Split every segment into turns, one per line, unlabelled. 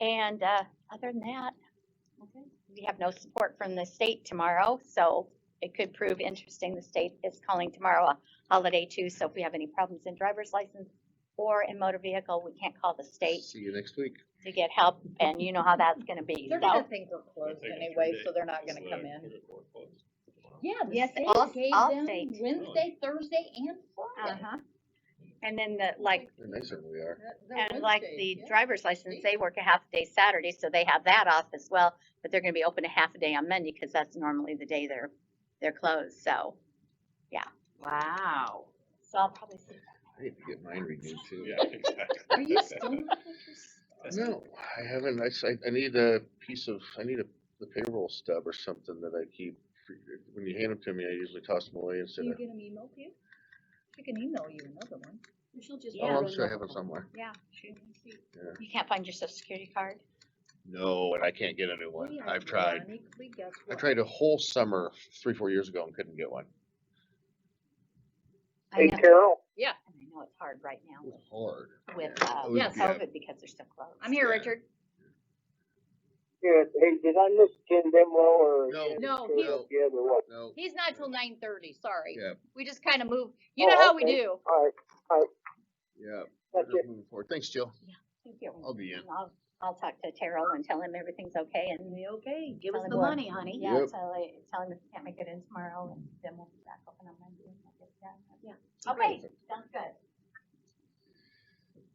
And, uh, other than that, we have no support from the state tomorrow, so it could prove interesting. The state is calling tomorrow a holiday too, so if we have any problems in driver's license or in motor vehicle, we can't call the state
See you next week.
to get help, and you know how that's gonna be,
They're
so.
gonna think we're closed anyway, so they're not gonna come in. Yeah, the
Yes,
state
all-
gave
all
them
state.
Wednesday, Thursday and Friday.
Uh-huh. And then the, like,
They're nicer than we are.
That- that
and like
Wednesday,
the
Oh, yeah.
driver's license, they work a half day Saturday, so they have that off as well, but they're gonna be open a half a day on Monday, cause that's normally the day they're, they're closed, so, yeah. Wow. So I'll probably see
I need to get mine renewed too.
Yeah, exactly.
Are you still not with your s-
No, I haven't. I, s- I- I need a piece of, I need a, the payroll stub or something that I keep. for- When you hand them to me, I usually toss them away
Do
instead
you
of,
get them emailed to you? She can email you another one.
She'll just.
oh, I'm sure I have it somewhere.
Yeah.
You can't find your social security card?
No, and I can't get a new one. I've tried.
Ironically, guess
I
what?
tried a whole summer, three, four years ago and couldn't get one.
I
Hey
know,
Carol,
and I know it's hard right now
It was hard.
with, uh,
It was
Yes.
bad.
COVID because they're still closed.
I'm here,
Yeah.
Richard.
yeah, hey, did I miss Ken Demlo or?
No.
Ken
No,
Curtis
he-
Yeah, there was.
uh, No,
He's not till nine thirty, sorry.
Yeah.
We just kinda move, you
Oh,
know how we
okay.
do.
All right,
yeah. we're
that's
just
it.
moving forward. Thanks, Jill.
Thank you.
I'll be in.
And I'll, I'll talk to Terrell and tell him everything's okay and,
Okay, give
us
us
the
the money, honey.
yeah,
Yep.
tell, tell him if he can't make it in tomorrow and then we'll be back open on Monday. and we'll get that.
Yeah.
Okay, sounds good.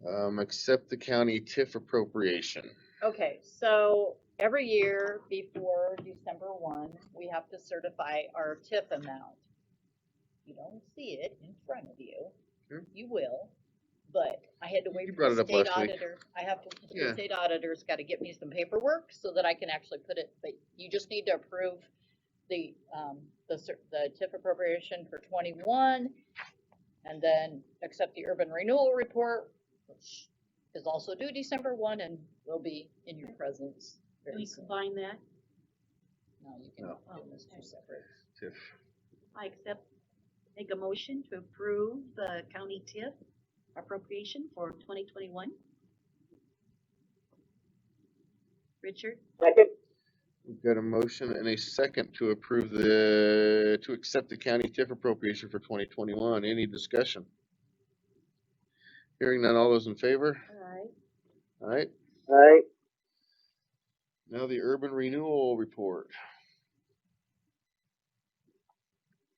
Um, accept the county TIF appropriation.
Okay, so every year before December one, we have to certify our TIF amount. You don't see it in front of you.
Sure.
You will, but I had to
You-
wait
you
for
brought it
the
up
state
last week.
auditor. I have to, the
Yeah.
state auditor's gotta get me some paperwork so that I can actually put it, but you just need to approve the, um, the cer- the TIF appropriation for twenty-one. And then accept the urban renewal report, which is also due December one and will be in your presence
Can
very
we
soon.
combine that?
No, you can
No.
do this two separate.
TIF.
I accept, make a motion to approve the county TIF appropriation for twenty twenty-one. Richard,
second,
We've got a motion and a second to approve the, to accept the county TIF appropriation for twenty twenty-one. Any discussion? Hearing none, all those in favor?
alright,
Alright,
all right,
now the urban renewal report.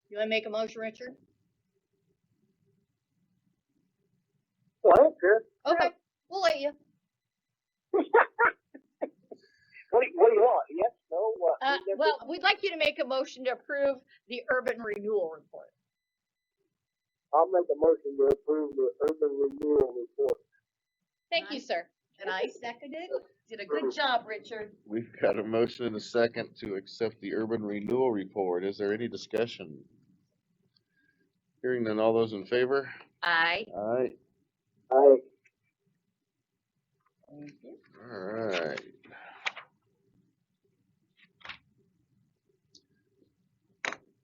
You wanna make a motion, Richard?
well, I don't care.
Okay, we'll let you.
What do you, what do you want, yes, no, what?
Uh,
Yes,
well, we'd like you to make a motion to approve the urban renewal report.
I'll make a motion to approve the urban renewal report.
Thank you,
Nice.
sir.
and I seconded, did a good job, Richard.
We've got a motion and a second to accept the urban renewal report. Is there any discussion? Hearing none, all those in favor?
I,
Alright,
I,
Alright.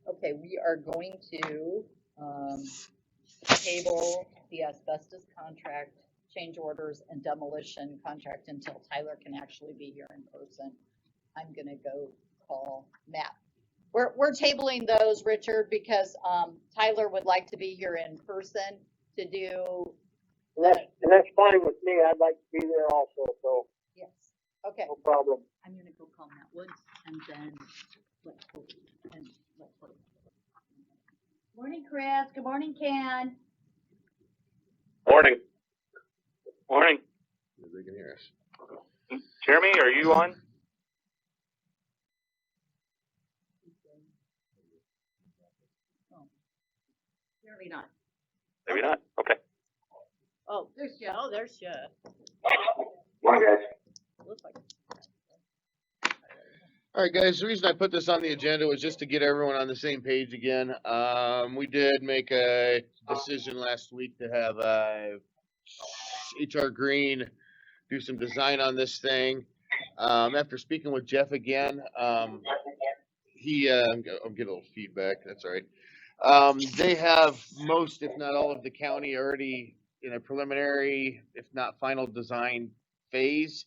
Okay, we are going to, um, table the asbestos contract, change orders and demolition contract until Tyler can actually be here in person. I'm gonna go call Matt. We're, we're tabling those, Richard, because, um, Tyler would like to be here in person to do,
and that's, and that's fine with me, I'd like to be there also, so,
yes, okay.
Oh.
no problem.
I'm gonna go call Matt Woods and then let Hope and let Hope. Morning, Chris, good morning, Ken.
Morning. Morning.
if They can hear us.
Jeremy, are you on?
Apparently not.
Maybe not. Okay.
Oh, there's Joe, there's Joe.
One guys.
Looks like
All right, guys, the reason I put this on the agenda was just to get everyone on the same page again. Um, we did make a decision last week to have, uh, HR Green do some design on this thing. Um, after speaking with Jeff again, um, he, uh, I'm get- I'm getting a little feedback, that's all right. Um, they have most, if not all of the county already in a preliminary, if not final design phase.